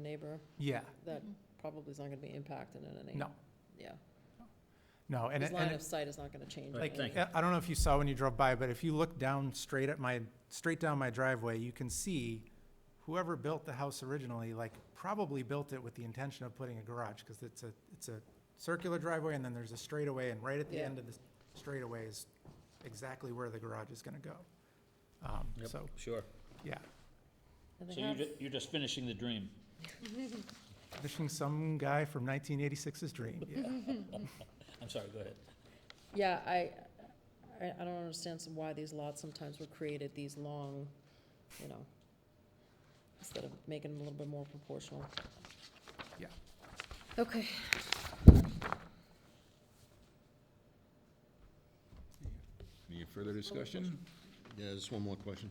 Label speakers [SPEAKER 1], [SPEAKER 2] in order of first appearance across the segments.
[SPEAKER 1] neighbor,
[SPEAKER 2] Yeah,
[SPEAKER 1] that probably is not gonna be impacted in any.
[SPEAKER 2] No.
[SPEAKER 1] Yeah,
[SPEAKER 2] no, and,
[SPEAKER 1] his
[SPEAKER 2] it-
[SPEAKER 1] line
[SPEAKER 2] and,
[SPEAKER 1] of
[SPEAKER 2] it-
[SPEAKER 1] sight is not gonna change.
[SPEAKER 3] Right,
[SPEAKER 1] in
[SPEAKER 3] thank
[SPEAKER 1] any-
[SPEAKER 2] I I don't know if you saw when you drove by, but if you look down straight at my, straight down my driveway, you can see whoever built the house originally, like, probably built it with the intention of putting a garage, because it's a, it's a circular driveway, and then there's a straightaway, and right at the
[SPEAKER 1] Yeah.
[SPEAKER 2] end of the straightaway is exactly where the garage is gonna go. Um,
[SPEAKER 3] Yep.
[SPEAKER 2] so,
[SPEAKER 3] Sure.
[SPEAKER 2] yeah,
[SPEAKER 1] And they
[SPEAKER 3] So you're,
[SPEAKER 1] have-
[SPEAKER 3] ju- you're just finishing the dream.
[SPEAKER 2] wishing some guy from 1986's dream, yeah.
[SPEAKER 3] I'm sorry, go ahead.
[SPEAKER 1] Yeah, I, I, I don't understand some, why these lots sometimes were created these long, you know, instead of making them a little bit more proportional.
[SPEAKER 2] Yeah.
[SPEAKER 1] Okay.
[SPEAKER 4] Any further discussion?
[SPEAKER 5] Yeah, just one more question.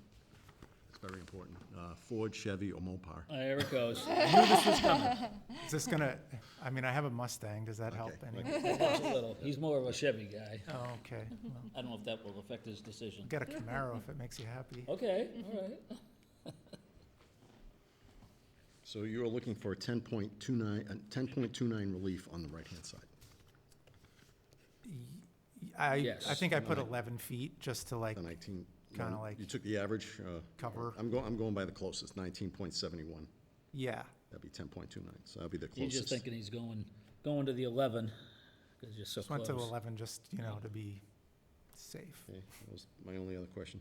[SPEAKER 5] It's very important. Uh, Ford, Chevy, or Mopar?
[SPEAKER 3] There Uh, it goes.
[SPEAKER 2] Is this gonna, I mean, I have a Mustang, does that help
[SPEAKER 5] Okay,
[SPEAKER 2] any?
[SPEAKER 3] Just a little. He's more of a Chevy guy.
[SPEAKER 2] Oh, okay, well,
[SPEAKER 3] I don't know if that will affect his decision.
[SPEAKER 2] get a Camaro if it makes you happy.
[SPEAKER 3] Okay, all right.
[SPEAKER 5] So you are looking for a 10.29, uh, 10.29 relief on the right-hand side.
[SPEAKER 2] I, I
[SPEAKER 3] Yes.
[SPEAKER 2] think I put eleven feet just to like,
[SPEAKER 5] The 19.
[SPEAKER 2] Kinda like-
[SPEAKER 5] You took the average. uh,
[SPEAKER 2] Cover.
[SPEAKER 5] I'm going, I'm going by the closest, 19.71.
[SPEAKER 2] yeah,
[SPEAKER 5] That'd be 10.29, so that'd be the
[SPEAKER 3] He's just
[SPEAKER 5] closest.
[SPEAKER 3] thinking he's going, going to the eleven, because you're so
[SPEAKER 2] just went
[SPEAKER 3] close.
[SPEAKER 2] to eleven, just, you know, to be safe.
[SPEAKER 5] Okay, That was my only other question.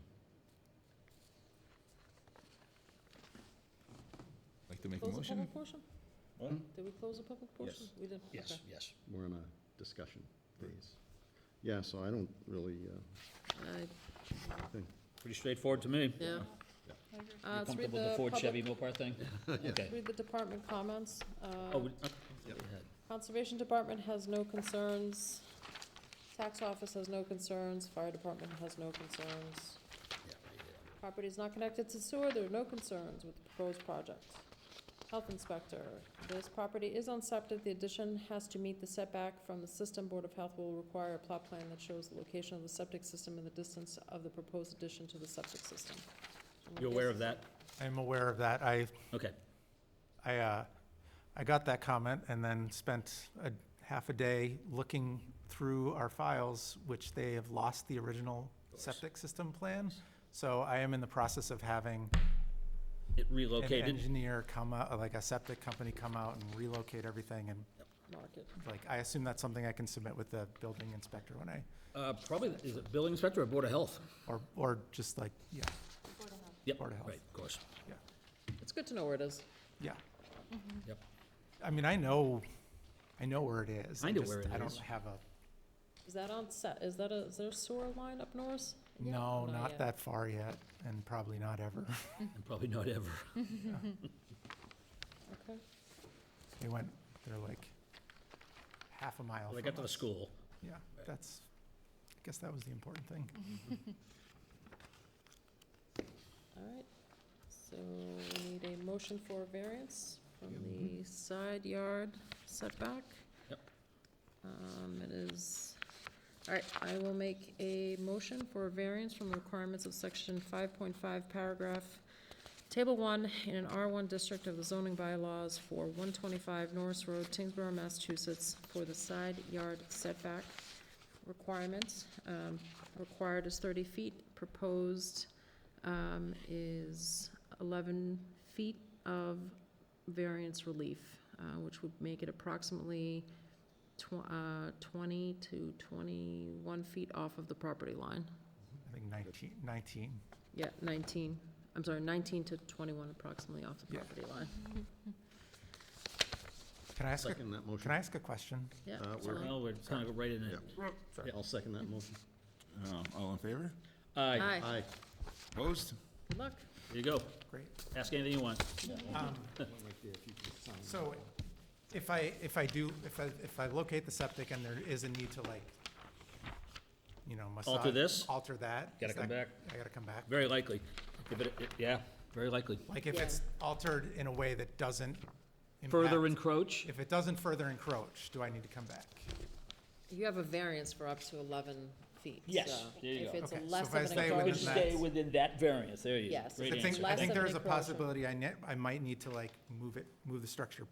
[SPEAKER 4] Like to make a
[SPEAKER 1] Close the
[SPEAKER 4] motion?
[SPEAKER 1] public portion?
[SPEAKER 2] Hmm?
[SPEAKER 3] What?
[SPEAKER 1] Did we close the public portion?
[SPEAKER 5] Yes.
[SPEAKER 1] We did, okay.
[SPEAKER 3] Yes, yes.
[SPEAKER 5] We're in a discussion phase. Yeah, so I don't really, uh,
[SPEAKER 1] I-
[SPEAKER 5] think,
[SPEAKER 3] Pretty straightforward to me.
[SPEAKER 1] Yeah.
[SPEAKER 3] You
[SPEAKER 1] Uh, let's read
[SPEAKER 3] comfortable with the Ford
[SPEAKER 1] public-
[SPEAKER 3] Chevy Mopar thing? Okay.
[SPEAKER 1] Read the department comments. Uh,
[SPEAKER 3] Oh, we- uh,
[SPEAKER 1] Conservation Department has no concerns. Tax Office has no concerns. Fire Department has no concerns. Property is not connected to sewer, there are no concerns with the proposed project. Health Inspector, this property is on septic, the addition has to meet the setback from the system. Board of Health will require a plot plan that shows the location of the septic system and the distance of the proposed addition to the septic system.
[SPEAKER 3] You're aware of that?
[SPEAKER 2] I'm aware of that, I,
[SPEAKER 3] Okay.
[SPEAKER 2] I, uh, I got that comment and then spent a half a day looking through our files, which they have lost the original septic system plan. So I am in the process of having
[SPEAKER 3] It
[SPEAKER 2] an
[SPEAKER 3] relocated.
[SPEAKER 2] engineer come out, like a septic company come out and relocate everything and
[SPEAKER 1] Market.
[SPEAKER 2] like, I assume that's something I can submit with the building inspector when I,
[SPEAKER 3] Uh, probably, is it building inspector or board of health?
[SPEAKER 2] or, or just like, yeah,
[SPEAKER 3] Yep,
[SPEAKER 2] Board of Health.
[SPEAKER 3] right, of course.
[SPEAKER 2] yeah,
[SPEAKER 1] It's good to know where it is.
[SPEAKER 2] yeah.
[SPEAKER 3] Yep.
[SPEAKER 2] I mean, I know, I know where it is.
[SPEAKER 3] I know
[SPEAKER 2] just-
[SPEAKER 3] where it
[SPEAKER 2] I don't
[SPEAKER 3] is.
[SPEAKER 2] have a,
[SPEAKER 1] Is that on set, is that a, is there a sewer line up north?
[SPEAKER 3] Mm.
[SPEAKER 1] Yeah,
[SPEAKER 2] no,
[SPEAKER 1] not
[SPEAKER 2] not
[SPEAKER 1] yet.
[SPEAKER 2] that far yet, and probably not ever.
[SPEAKER 3] And probably not ever.
[SPEAKER 1] Okay.
[SPEAKER 2] They went, they're like half a mile
[SPEAKER 3] They
[SPEAKER 2] from
[SPEAKER 3] got to the
[SPEAKER 2] us.
[SPEAKER 3] school.
[SPEAKER 2] Yeah,
[SPEAKER 3] Right.
[SPEAKER 2] that's, I guess that was the important thing.
[SPEAKER 1] All right, so we need a motion for variance from the side yard setback.
[SPEAKER 3] Yep.
[SPEAKER 1] Um, it is, all right, I will make a motion for a variance from the requirements of section five point five, paragraph, table one, in an R one district of the zoning bylaws for one twenty-five Norris Road, Tingsboro, Massachusetts, for the side yard setback requirements. Um, required is thirty feet, proposed um, is 11 feet of variance relief, uh, which would make it approximately tw- uh, 20 to 21 feet off of the property line.
[SPEAKER 2] I think nineteen, nineteen,
[SPEAKER 1] Yeah, 19, I'm sorry, 19 to 21 approximately off the
[SPEAKER 2] Yeah.
[SPEAKER 1] property line.
[SPEAKER 2] can I ask, a-
[SPEAKER 5] second that
[SPEAKER 2] can I
[SPEAKER 5] motion.
[SPEAKER 2] ask a question?
[SPEAKER 1] Yeah.
[SPEAKER 5] Uh,
[SPEAKER 1] it's
[SPEAKER 5] we're-
[SPEAKER 1] all-
[SPEAKER 3] Well, we're kind of right in it.
[SPEAKER 5] Sorry, I'll second that motion.
[SPEAKER 4] Um, All in favor?
[SPEAKER 3] Aye,
[SPEAKER 1] Hi,
[SPEAKER 5] Aye.
[SPEAKER 4] Opposed?
[SPEAKER 1] good luck.
[SPEAKER 3] there you go.
[SPEAKER 2] Great.
[SPEAKER 3] Ask anything you want.
[SPEAKER 2] So if I, if I do, if I, if I locate the septic and there is a need to like, you know, massage.
[SPEAKER 3] this?
[SPEAKER 2] Alter that.
[SPEAKER 3] Gotta
[SPEAKER 2] is
[SPEAKER 3] come
[SPEAKER 2] that-
[SPEAKER 3] back.
[SPEAKER 2] I gotta come back.
[SPEAKER 3] Very likely. If it, it- yeah, very likely.
[SPEAKER 2] Like if
[SPEAKER 1] Yeah.
[SPEAKER 2] it's altered in a way that doesn't. impact-
[SPEAKER 3] Further encroach?
[SPEAKER 2] If it doesn't further encroach, do I need to come back?
[SPEAKER 1] You have a variance for up to 11 feet.
[SPEAKER 3] Yes,
[SPEAKER 1] so
[SPEAKER 3] there you
[SPEAKER 1] If
[SPEAKER 3] go.
[SPEAKER 1] it's a
[SPEAKER 2] Okay, so
[SPEAKER 1] less
[SPEAKER 2] if
[SPEAKER 1] of
[SPEAKER 2] I
[SPEAKER 1] an
[SPEAKER 2] stay within
[SPEAKER 3] It would
[SPEAKER 2] Would
[SPEAKER 1] encroachment.
[SPEAKER 3] stay
[SPEAKER 2] stay
[SPEAKER 3] within that variance, there you go.
[SPEAKER 1] Yes.
[SPEAKER 2] I
[SPEAKER 1] Great
[SPEAKER 2] think,
[SPEAKER 1] answer.
[SPEAKER 2] I
[SPEAKER 1] Less
[SPEAKER 2] think
[SPEAKER 1] of
[SPEAKER 2] there
[SPEAKER 1] an
[SPEAKER 2] is a
[SPEAKER 1] encroachment.
[SPEAKER 2] possibility I net, I might need to like move it, move the structure